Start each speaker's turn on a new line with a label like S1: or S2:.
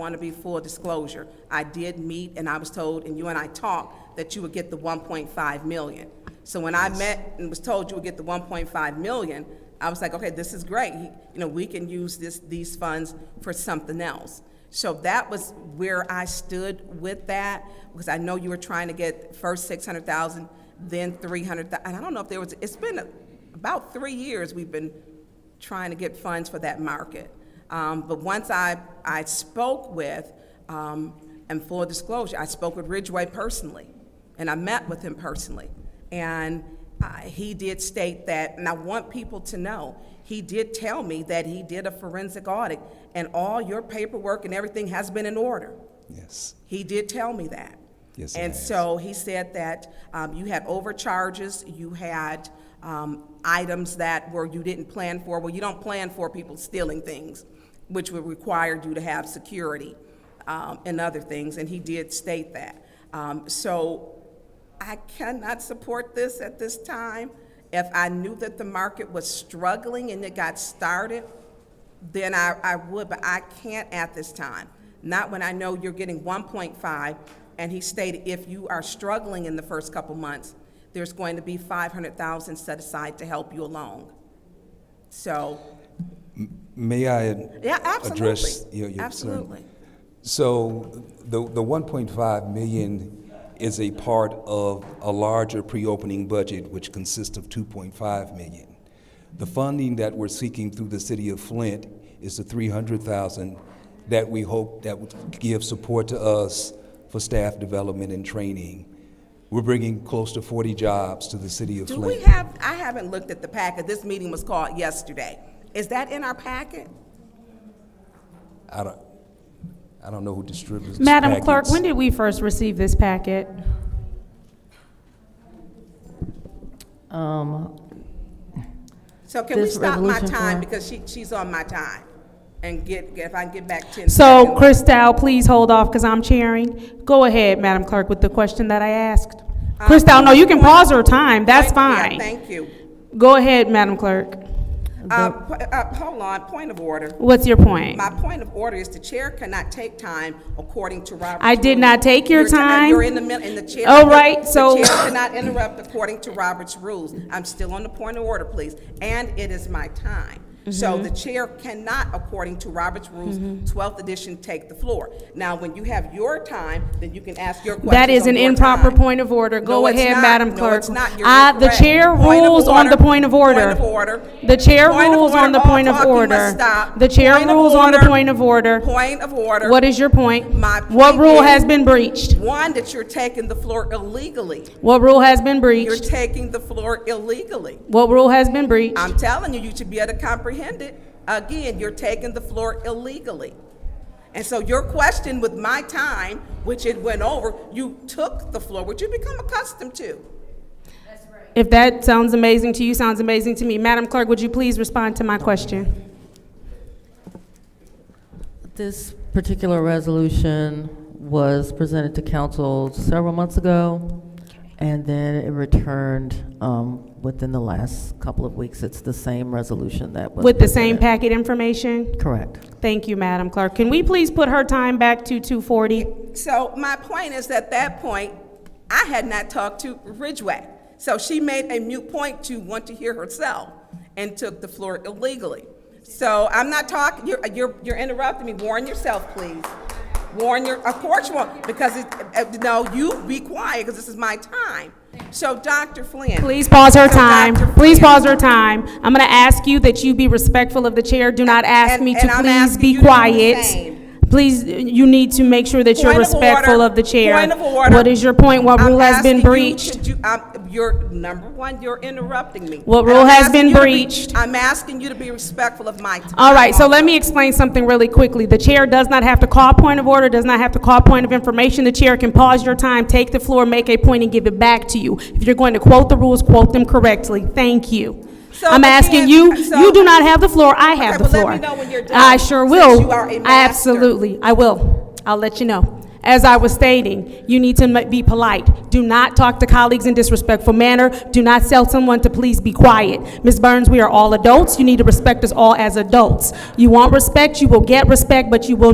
S1: want to be full disclosure. I did meet, and I was told, and you and I talked, that you would get the 1.5 million. So when I met and was told you would get the 1.5 million, I was like, okay, this is great. You know, we can use this, these funds for something else. So that was where I stood with that, because I know you were trying to get first 600,000, then 300,000. And I don't know if there was, it's been about three years we've been trying to get funds for that market. Um, but once I, I spoke with, um, and full disclosure, I spoke with Ridgway personally, and I met with him personally. And uh, he did state that, and I want people to know, he did tell me that he did a forensic audit, and all your paperwork and everything has been in order.
S2: Yes.
S1: He did tell me that.
S2: Yes, he
S1: And
S2: has.
S1: so he said that um, you had overcharges, you had um, items that were, you didn't plan for. Well, you don't plan for people stealing things, which would require you to have security um, and other things, and he did state that. Um, So I cannot support this at this time. If I knew that the market was struggling and it got started, then I, I would, but I can't at this time. Not when I know you're getting one point five, and he stated if you are struggling in the first couple months, there's going to be five hundred thousand set aside to help you along. So,
S2: May I?
S1: yeah, absolutely.
S2: Address your, your concern?
S1: Absolutely.
S2: So the, the 1.5 million is a part of a larger pre-opening budget, which consists of 2.5 million. The funding that we're seeking through the city of Flint is the 300,000 that we hope that would give support to us for staff development and training. We're bringing close to 40 jobs to the city of
S1: Do
S2: Flint.
S1: we have, I haven't looked at the packet, this meeting was called yesterday. Is that in our packet?
S2: I don't, I don't know who distributes
S3: Madam Clerk,
S2: packets.
S3: when did we first receive this packet?
S4: Um,
S1: So can we
S4: This
S1: stop my
S4: resolution
S1: time,
S4: for-
S1: because she, she's on my time, and get, if I can get back ten seconds.
S3: So, Christal, please hold off because I'm chairing. Go ahead, Madam Clerk, with the question that I asked. Christal, no, you can pause her time, that's
S1: Thank- Um, yeah,
S3: fine.
S1: Thank you.
S3: Go ahead, Madam Clerk.
S1: Uh, po- uh, Hold on, point of order.
S3: What's your point?
S1: My point of order is the chair cannot take time according to Robert's.
S3: I did
S1: rules.
S3: not take your
S1: ti-
S3: time.
S1: You're in the middle, and the chair.
S3: All right, so-
S1: The chair cannot interrupt according to Robert's rules. I'm still on the point of order, please, and it is my time. So
S3: Mm-hmm.
S1: the chair cannot, according to Robert's rules, 12th edition, take the floor. Now, when you have your time, then you can ask your questions
S3: That is
S1: on
S3: an
S1: your
S3: improper
S1: time.
S3: point of order. Go
S1: No, it's
S3: ahead,
S1: not.
S3: Madam
S1: No,
S3: Clerk.
S1: it's not. You're
S3: I- the
S1: incorrect.
S3: chair
S1: Point of
S3: rules on the point of order.
S1: Point of order.
S3: The chair
S1: Point of
S3: rules on
S1: order.
S3: the
S1: All
S3: point of
S1: talking must
S3: order.
S1: stop.
S3: The chair
S1: Point of
S3: rules on the
S1: order.
S3: point of order.
S1: Point of order.
S3: What is your point?
S1: My
S3: What
S1: point
S3: rule
S1: is-
S3: has been breached?
S1: One, that you're taking the floor illegally.
S3: What rule has been
S1: You're
S3: breached?
S1: taking the floor illegally.
S3: What rule has been breached?
S1: I'm telling you, you should be able to comprehend it. Again, you're taking the floor illegally. And so your question with my time, which it went over, you took the floor, which you become accustomed to.
S3: If that sounds amazing to you, sounds amazing to me. Madam Clerk, would you please respond to my question?
S4: This particular resolution was presented to council several months ago, and then it returned um, within the last couple of weeks. It's the same resolution that was.
S3: With the same
S4: presented.
S3: packet information?
S4: Correct.
S3: Thank you, Madam Clerk. Can we please put her time back to 240?
S1: So my point is, at that point, I had not talked to Ridgway. So she made a mute point to want to hear herself and took the floor illegally. So I'm not talking, you're, you're, you're interrupting me. Warn yourself, please. Warn your, of course you won't, because it, uh, no, you be quiet, because this is my time. So Dr. Flynn.
S3: Please pause her
S1: So,
S3: time.
S1: Dr.
S3: Please
S1: Flynn-
S3: pause her time. I'm going to ask you that you be respectful of the chair. Do not ask
S1: And-
S3: me to
S1: and I'm
S3: please
S1: asking you
S3: be
S1: to do the
S3: quiet.
S1: same.
S3: Please, you need to make sure that you're
S1: Point of
S3: respectful
S1: order.
S3: of the chair.
S1: Point of order.
S3: What is your point? What
S1: I'm
S3: rule has
S1: asking
S3: been
S1: you
S3: breached?
S1: to do- I'm- You're, number one, you're interrupting me.
S3: What
S1: And
S3: rule
S1: I'm
S3: has
S1: asking
S3: been
S1: you to be-
S3: breached?
S1: I'm asking you to be respectful of my time.
S3: All right, so let me explain something really quickly. The chair does not have to call point of order, does not have to call point of information. The chair can pause your time, take the floor, make a point, and give it back to you. If you're going to quote the rules, quote them correctly. Thank you.
S1: So,
S3: I'm
S1: but
S3: asking
S1: then-
S3: you,
S1: so-
S3: you do not have the floor, I
S1: Okay,
S3: have the
S1: but let
S3: floor.
S1: me know when you're done,
S3: I sure
S1: since
S3: will.
S1: you are a master.
S3: Absolutely, I will. I'll let you know. As I was stating, you need to ma- be polite. Do not talk to colleagues in disrespectful manner. Do not tell someone to please be quiet. Ms. Burns, we are all adults. You need to respect us all as adults. You want respect, you will get respect, but you will